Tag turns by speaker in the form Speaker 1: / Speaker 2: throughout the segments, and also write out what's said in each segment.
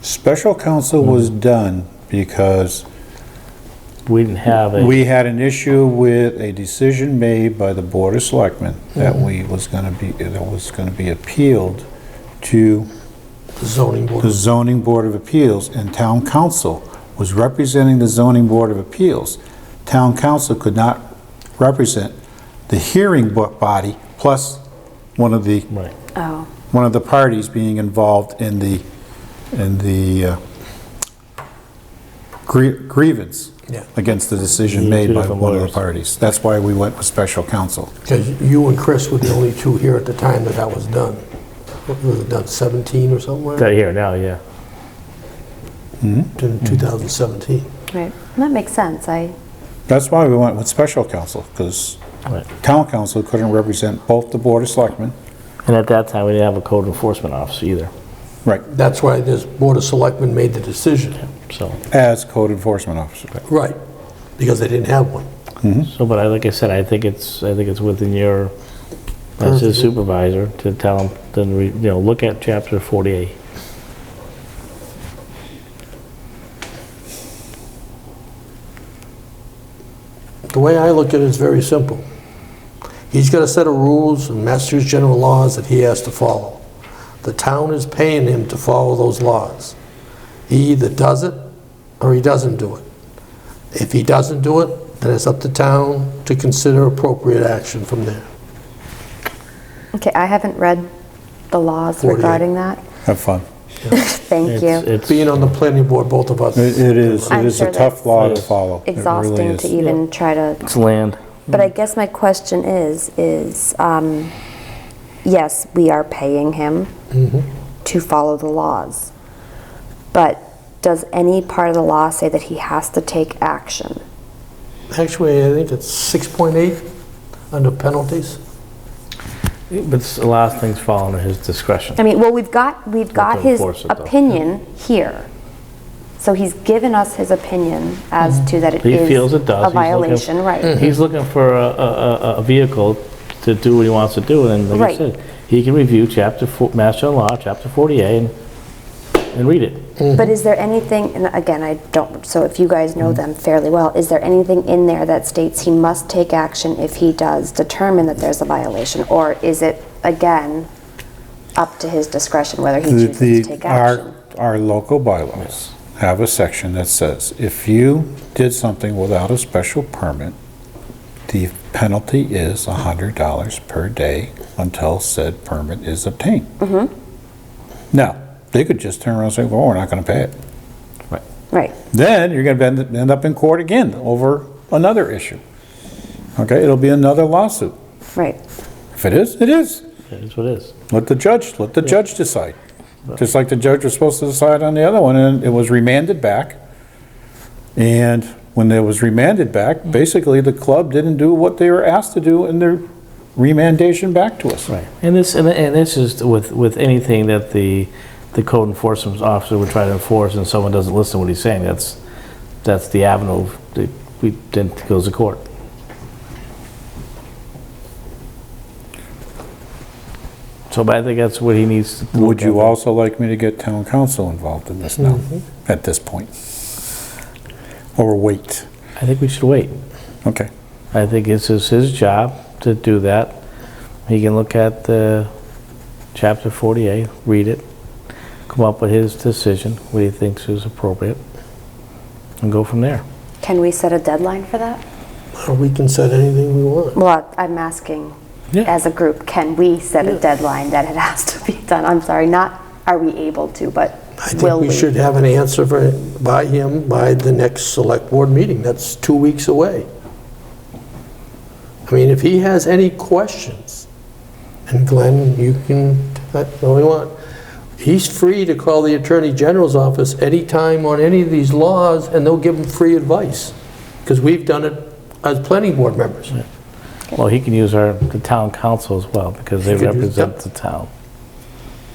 Speaker 1: Special counsel was
Speaker 2: Mm.
Speaker 1: done because
Speaker 3: We didn't have a,
Speaker 1: we had an issue with a decision made by the Board of Selectmen that
Speaker 2: Mm-hmm.
Speaker 1: we was gonna be, that was gonna be appealed to
Speaker 2: the zoning board.
Speaker 1: the zoning board of appeals and town council was representing the zoning board of appeals. Town council could not represent the hearing bo- body plus one of the,
Speaker 3: right.
Speaker 4: Oh,
Speaker 1: one of the parties being involved in the, in the uh, grie- grievance
Speaker 2: Yeah.
Speaker 1: against the decision
Speaker 3: Yeah,
Speaker 1: made
Speaker 3: two
Speaker 1: by
Speaker 3: different
Speaker 1: one of the
Speaker 3: lawyers.
Speaker 1: parties. That's why we went with special counsel.
Speaker 2: Because you and Chris were the only two here at the time that that was done. What was it done, 17 or somewhere?
Speaker 3: Got here now, yeah.
Speaker 2: In 2017.
Speaker 4: right. That makes sense. I,
Speaker 1: That's why we went with special counsel, because
Speaker 3: Right.
Speaker 1: town council couldn't represent both the board of selectmen.
Speaker 3: And at that time, we didn't have a code enforcement officer either,
Speaker 1: Right.
Speaker 2: That's why this Board of Selectmen made the decision.
Speaker 3: so.
Speaker 1: As code enforcement officer.
Speaker 2: Right, because they didn't have one.
Speaker 3: So, but I, like I said, I think it's, I think it's within your, as his supervisor, to tell him, then, re- you know, look at chapter 48.
Speaker 2: The way I look at it is very simple. He's got a set of rules and Massachusetts general laws that he has to follow. The town is paying him to follow those laws. He either does it or he doesn't do it. If he doesn't do it, then it's up to town to consider appropriate action from there.
Speaker 4: okay, I haven't read the laws
Speaker 2: 48.
Speaker 4: regarding that.
Speaker 1: Have fun.
Speaker 4: Thank
Speaker 3: It's-
Speaker 4: you.
Speaker 3: It's,
Speaker 2: Being on the planning board, both of us.
Speaker 1: It it is, it
Speaker 4: I'm
Speaker 1: is a
Speaker 4: sure
Speaker 1: tough
Speaker 4: that's
Speaker 1: law to
Speaker 3: Yes.
Speaker 1: follow. It really
Speaker 4: Exhausting to
Speaker 1: is.
Speaker 4: even try to,
Speaker 3: it's land.
Speaker 4: but I guess my question is, is, um, yes, we are paying him
Speaker 3: Mm-hmm.
Speaker 4: to follow the laws. But does any part of the law say that he has to take action?
Speaker 2: Actually, I think it's 6.8 under penalties.
Speaker 3: But it's- a lot of things fall under his discretion.
Speaker 4: I mean, well, we've got, we've got
Speaker 3: to
Speaker 4: his
Speaker 3: enforce it, though. Hmm.
Speaker 4: opinion here. So he's given us his opinion as to that it
Speaker 3: Mm-hmm. He
Speaker 4: is
Speaker 3: feels it does.
Speaker 4: a
Speaker 3: He's looking- Mm-hmm.
Speaker 4: violation, right?
Speaker 3: He's looking for a, a, a- a vehicle to do what he wants to do, and like I
Speaker 4: Right.
Speaker 3: said, he can review chapter, four- Mass General Law, chapter 48, and, and read it.
Speaker 4: But is there anything, and again, I don't, so if you guys know them fairly well, is there anything in there that states he must take action if he does determine that there's a violation? Or is it, again, up to his discretion whether he chooses to
Speaker 1: The,
Speaker 4: take action?
Speaker 1: our, our local bylaws have a section that says, if you did something without a special permit, the penalty is $100 per day until said permit is obtained.
Speaker 4: Mm-hmm.
Speaker 1: Now, they could just turn around and say, well, we're not going to pay it.
Speaker 4: Right,
Speaker 1: Then you're going to end up in court again over another issue. Okay, it'll be another lawsuit.
Speaker 4: right.
Speaker 1: If it is, it is.
Speaker 3: That's what it is.
Speaker 1: Let the judge, let the judge decide. Just like the judge was supposed to decide on the other one, and it was remanded back. And when it was remanded back, basically, the club didn't do what they were asked to do in their remandation back to us.
Speaker 3: Right, and this, and and this is with, with anything that the, the code enforcement officer would try to enforce and someone doesn't listen to what he's saying, that's, that's the avenue that we, then goes to court. So, but I think that's what he needs to. look
Speaker 1: Would you
Speaker 3: at.
Speaker 1: also like me to get town council involved in this now, at this point? Or wait?
Speaker 3: I think we should wait.
Speaker 1: Okay.
Speaker 3: I think it's his, his job to do that. He can look at the chapter 48, read it, come up with his decision, what he thinks is appropriate, and go from there.
Speaker 4: Can we set a deadline for that?
Speaker 2: We can set anything we want.
Speaker 4: Well, I'm asking,
Speaker 3: Yeah.
Speaker 4: as a group, can we set a deadline that it has to be done? I'm sorry, not are we able to, but
Speaker 2: I think
Speaker 4: will we?
Speaker 2: we should have an answer for- by him by the next select board meeting. That's two weeks away. I mean, if he has any questions, and Glenn, you can, that's all you want. He's free to call the Attorney General's office anytime on any of these laws, and they'll give him free advice, because we've done it as planning board members.
Speaker 3: Well, he can use our, the town council as well, because they
Speaker 2: He could use-
Speaker 3: represent the town.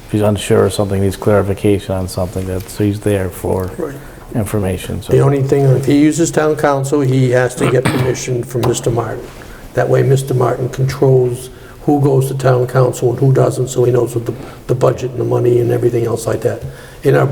Speaker 3: If he's unsure of something, needs clarification on something, that's, he's there for
Speaker 2: Right.
Speaker 3: information,
Speaker 2: The
Speaker 3: so.
Speaker 2: only thing, if he uses town council, he has to get permission from Mr. Martin. That way, Mr. Martin controls who goes to town council and who doesn't, so he knows what the, the budget and the money and everything else like that. In our